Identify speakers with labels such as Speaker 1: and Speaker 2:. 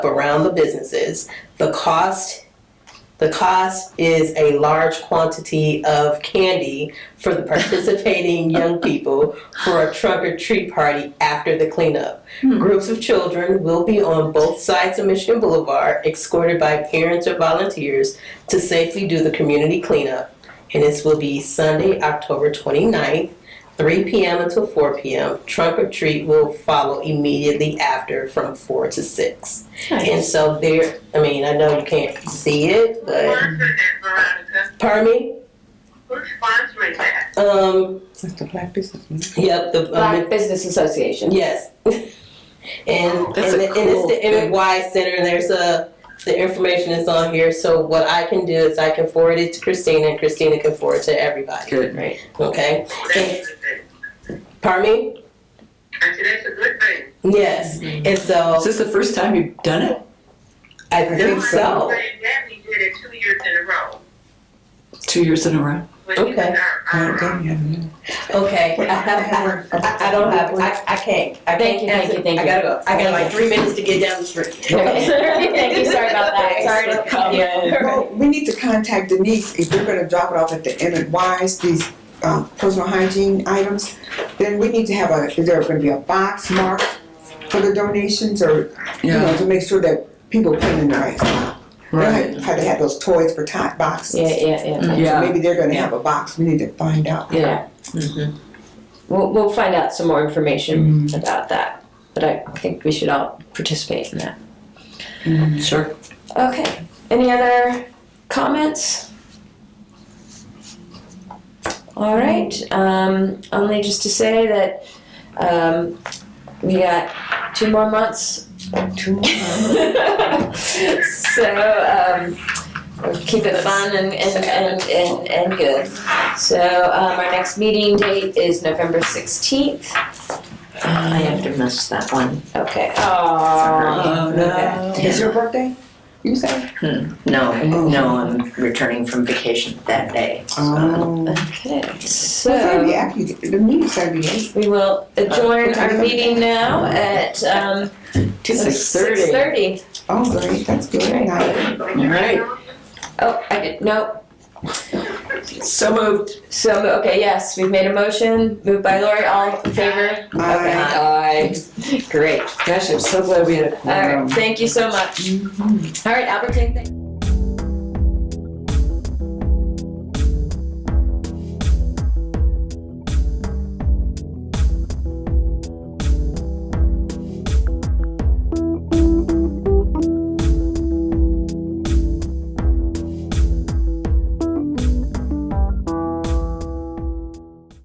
Speaker 1: around the businesses. The cost, the cost is a large quantity of candy for the participating young people for a trunk or treat party after the cleanup.
Speaker 2: Hmm.
Speaker 1: Groups of children will be on both sides of Michigan Boulevard escorted by parents or volunteers to safely do the community cleanup. And this will be Sunday, October 29th, 3 p.m. until 4 p.m. Trunk or treat will follow immediately after from 4 to 6.
Speaker 2: um,
Speaker 1: And so there, I mean, I know you can't see it, but
Speaker 3: Who sponsored that, Veronica?
Speaker 1: pardon me.
Speaker 3: Who's sponsoring that?
Speaker 1: Um,
Speaker 4: Like the black business.
Speaker 1: yep. The um,
Speaker 2: Black Business Association.
Speaker 1: yes. and
Speaker 4: That's
Speaker 1: and, the-
Speaker 4: a
Speaker 1: and it's
Speaker 4: cool
Speaker 1: the
Speaker 4: thing.
Speaker 1: MY Center, and there's a the information is on here. So what I can do is I can forward it to Christina, and Christina can forward it to everybody.
Speaker 4: Good.
Speaker 1: Okay.
Speaker 3: That's a good thing.
Speaker 1: Pardon me.
Speaker 3: I said, that's a good thing.
Speaker 1: Yes. And
Speaker 4: Is
Speaker 1: so
Speaker 4: this the first time you've done it?
Speaker 1: I think
Speaker 3: Now,
Speaker 1: so.
Speaker 3: I'm saying That we did it two years in a row.
Speaker 4: Two years in a row?
Speaker 3: when he was
Speaker 1: Okay.
Speaker 3: our- our-
Speaker 1: Okay. I, have, I, I don't have. I, I can't. I can't
Speaker 2: Thank you, thank
Speaker 1: answer.
Speaker 2: you, thank
Speaker 1: I
Speaker 2: you.
Speaker 1: gotta go. I got like
Speaker 2: Thank
Speaker 1: three minutes to get down the street.
Speaker 2: Thank you, sorry about that. Sorry to cut you.
Speaker 5: Well, we need to contact Denise if we're gonna drop it off at the end of Wise, these, um, personal hygiene items. Then we need to have a, is there gonna be a box marked for the donations or, you know,
Speaker 4: Yeah,
Speaker 5: to make sure that people put in the right spot.
Speaker 4: right.
Speaker 5: They had to have those toys for tot boxes.
Speaker 2: Yeah, yeah, yeah,
Speaker 5: So
Speaker 4: Yeah,
Speaker 5: Maybe they're gonna have a box, we need to find out.
Speaker 2: yeah. Mm-hmm. We'll, we'll find out some more information about that, but I think we should all participate in that.
Speaker 4: sure.
Speaker 2: Okay, any other comments? All right, um, only just to say that, um, we got two more months.
Speaker 5: Two more
Speaker 2: So, um, we'll keep it fun and, and, and, and, and good. So, um, our next meeting date is November sixteenth.
Speaker 6: I have to miss that one.
Speaker 2: Okay, aw.
Speaker 4: Oh, no.
Speaker 5: It's your birthday, you say?
Speaker 6: No, no, I'm returning from vacation that day.
Speaker 5: Oh.
Speaker 2: Okay, so.
Speaker 5: So it's gotta be after, you get- the meeting's gotta be late.
Speaker 2: We will adjourn our meeting now at, um,
Speaker 4: Two six thirty.
Speaker 2: Six thirty.
Speaker 5: Oh, great, that's good,
Speaker 2: Right.
Speaker 5: nice.
Speaker 4: All right,
Speaker 2: Oh, I did, no,
Speaker 4: so moved.
Speaker 2: so, okay, yes, we've made a motion, moved by Lori, all in favor? Okay, aye. Great,
Speaker 4: Gosh, I'm so glad we had a
Speaker 2: all right,
Speaker 4: quorum.
Speaker 2: thank you so much. All right, Albertine, thank